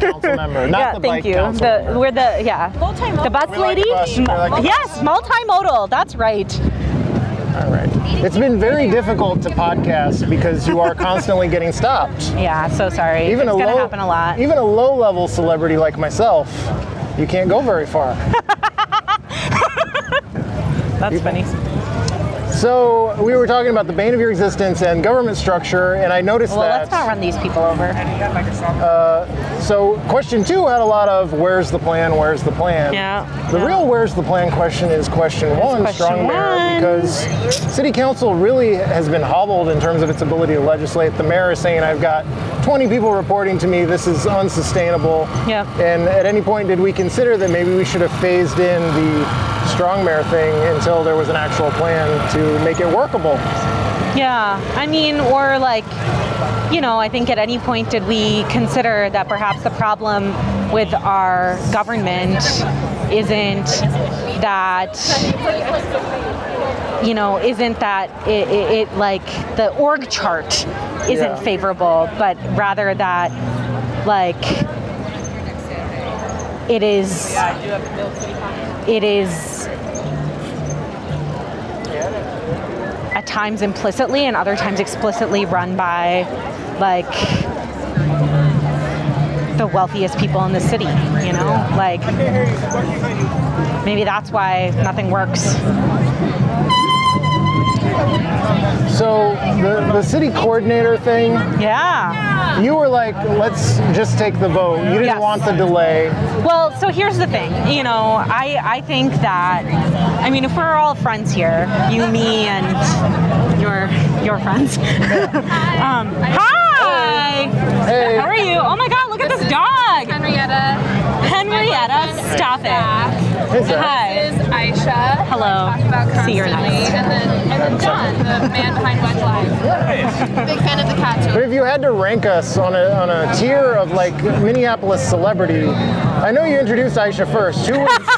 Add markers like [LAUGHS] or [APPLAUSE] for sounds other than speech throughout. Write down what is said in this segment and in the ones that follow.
council member, not yeah, the thank bike you. council The, member. we're the yeah. The bus We like lady. the bus, we like the yes, multimodal. That's right. All right. It's been very difficult to podcast because you are constantly getting stopped. Yeah. So sorry. Even it's a gonna low, happen a lot. Even a low-level celebrity like myself, you can't go very far. That's funny. So we were talking about the bane of your existence and government structure, and I noticed Well, that. let's not run these people over. So question two had a lot of where's the plan, where's the plan. Yeah, The yeah. real where's the plan question is question one, question strong mayor, one. because city council really has been hobbled in terms of its ability to legislate. The mayor is saying I've got 20 people reporting to me, this is unsustainable. Yeah. And at any point did we consider that maybe we should have phased in the strong mayor thing until there was an actual plan to make it workable? Yeah. I mean, or like, you know, I think at any point did we consider that perhaps the problem with our government isn't that you know isn't that it, it, it like the org chart Yeah. isn't favorable but rather that like it is it is at times implicitly and other times explicitly run by like the wealthiest people in the city you know like maybe that's why nothing works So the, the city coordinator thing, yeah You were like, let's just take the vote. You didn't Yes. want the delay. well so here's the thing you know i i think that i mean if we're all friends here you me and your your friends [LAUGHS] um, hi Hey. how are you oh my god look at this dog Henrietta henrietta stop it Is that- Hi. is Aisha. Hello. Talking about See, constantly. you're nice. And then and then John, the man behind Wedge Live. Big fan of the cat But too. if you had to rank us on a, on a tier of like Minneapolis celebrity, I know you introduced Aisha first. Who was? [LAUGHS]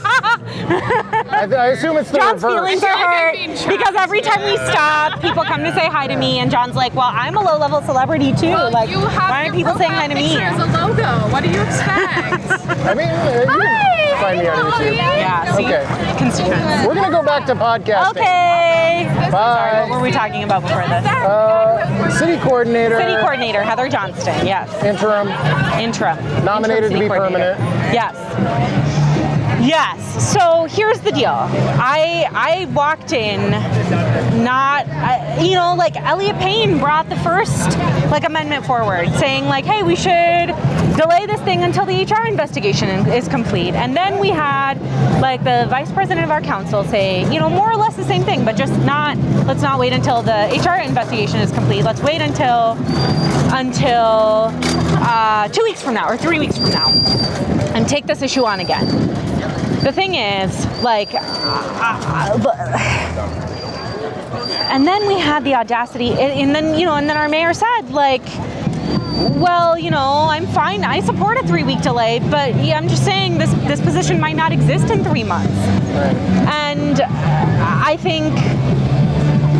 I, I assume it's the John's reverse. feelings are I feel like I'm hurt being trapped. because every time we stop, people come to say hi to me, and John's like, "Well, I'm a low-level celebrity too. Well, like, you have why your aren't people saying hi profile to me?" picture as a logo. What do you expect? I mean, uh, you can find me on YouTube. Yeah. See, Okay. constituents. We're gonna go back to podcasting. Okay. Sorry, what Bye. were we talking about before this? Uh, city coordinator. City coordinator Heather Johnston. Yes. Interim. Interim. Nominated Interim to city be coordinator. permanent. Yes. Yes. So here's the deal. I I walked in not I, you know like Elliot Payne brought the first like amendment forward saying like hey we should delay this thing until the HR investigation is complete. And then we had like the vice president of our council say, you know, more or less the same thing, but just not let's not wait until the HR investigation is complete. Let's wait until until uh, two weeks from now or three weeks from now and take this issue on again. The thing is, like, [SIGHS] uh, uh, but- and then we had the audacity, and, and then, you know, and then our mayor said, like, well, you know, I'm fine. I support a three-week delay, but yeah, I'm just saying this this position might not exist in three months. And I think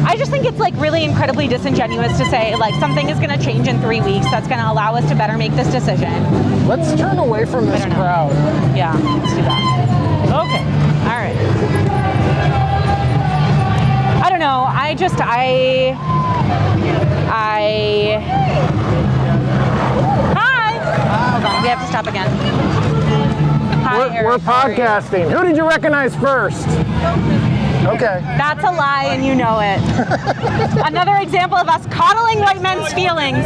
I just think it's like really incredibly disingenuous to say like something is going to change in three weeks that's going to allow us to better make this decision. Let's turn away from this don't know. crowd. Yeah, let's do that. Okay. All right. I don't know. I just I I Hi. Hold on. We have to stop again. Hi, We're, Eric, we're how are you? podcasting. Who did you recognize first? Okay. That's a lie, and you know [LAUGHS] it. Another example of us coddling white men's feelings.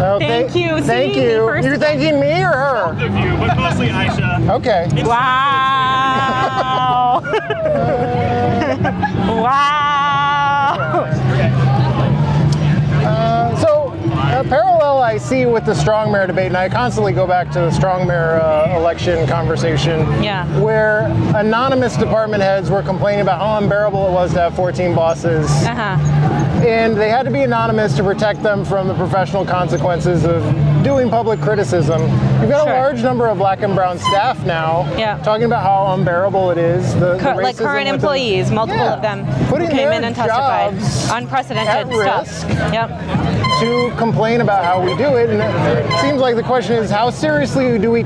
Oh, Thank you. See, Thank me you. first. You're thanking me or her? of you, but mostly Aisha. Okay. Wow. [LAUGHS] wow. So, a parallel I see with the strong mayor debate, and I constantly go back to the strong mayor uh, election conversation, Yeah. where anonymous department heads were complaining about how unbearable it was to have 14 bosses, Uh-huh. and they had to be anonymous to protect them from the professional consequences of doing public criticism. You've got Sure. a large number of black and brown staff now Yeah. talking about how unbearable it is. The, the Cur- like racism current within- employees, multiple Yeah. of them Putting who came their in and testified. jobs Unprecedented at stuff. risk. Yep. to complain about how we do it. And it seems like the question is how seriously do we